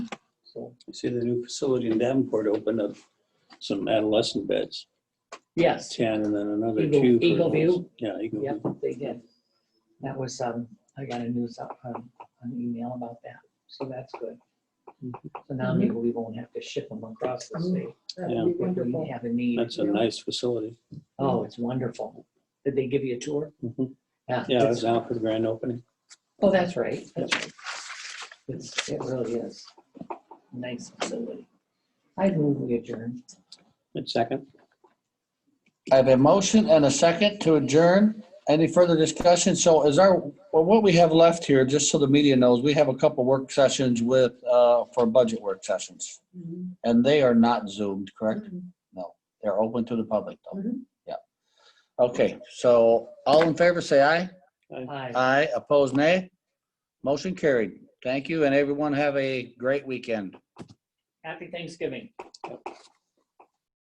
I see the new facility in Davenport opened up some adolescent beds, Yes, 10 and then another Eagle- two. for Eagle View? adults. Yeah, Eagle yep, View. they did. That was, um, I got a news, up, um, an email about that, so that's good. Mm-hmm. So now maybe we won't have to ship them across the state That Mm-hmm. Yeah. would be if wonderful. we have a need. That's a nice facility. Oh, it's wonderful. Did they give you a tour? Mhm. Yeah. Yeah, I it's- was out for the grand opening. Oh, that's right, that's right. It's, it really is. Nice facility. I move we adjourn. And second, I have a motion and a second to adjourn. Any further discussion? So is our, well, what we have left here, just so the media knows, we have a couple work sessions with, uh, for budget work sessions. Mhm. And they are not zoomed, correct? They're open to the public though. Mhm. Yeah. Okay, so all in favor, say aye. Aye. Aye, opposed, nay. Motion carried. Thank you and everyone have a great weekend. Happy Thanksgiving.